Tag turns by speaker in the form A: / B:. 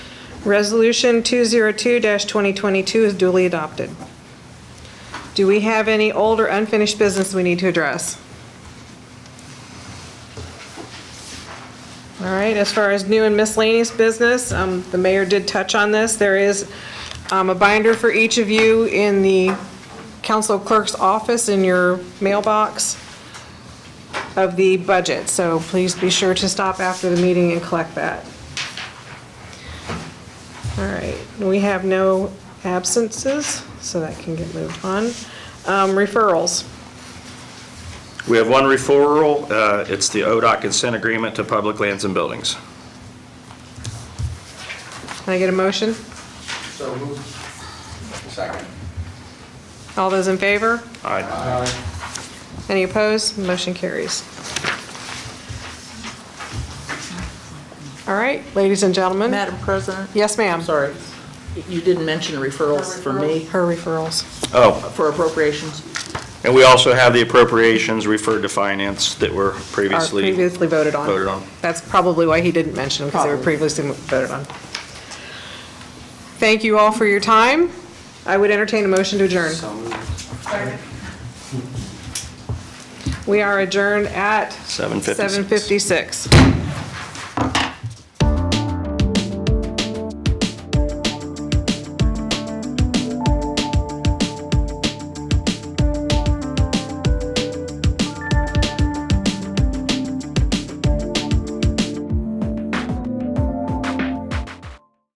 A: Resolution 202-2022 is duly adopted. Do we have any old or unfinished business we need to address? All right, as far as new and miscellaneous business, um, the mayor did touch on this. There is um, a binder for each of you in the council clerk's office in your mailbox of the budget, so please be sure to stop after the meeting and collect that. All right, we have no absences, so that can get moved on. Um, Referrals.
B: We have one referral. uh, It's the ODOT consent agreement to public lands and buildings.
A: Can I get a motion?
C: So moved. Second.
A: All those in favor?
B: Aye.
A: Any opposed? Motion carries. All right, ladies and gentlemen.
D: Madam President?
A: Yes, ma'am.
D: I'm sorry, you didn't mention referrals for me,
A: Her referrals.
B: Oh,
D: for appropriations.
B: and we also have the appropriations referred to finance that were
A: Are
B: previously,
A: previously voted on.
B: voted on.
A: That's probably why he didn't mention them, because they were
D: Probably.
A: previously voted on. Thank you all for your time. I would entertain a motion to adjourn. We are adjourned at
B: 7:56.
A: 7:56.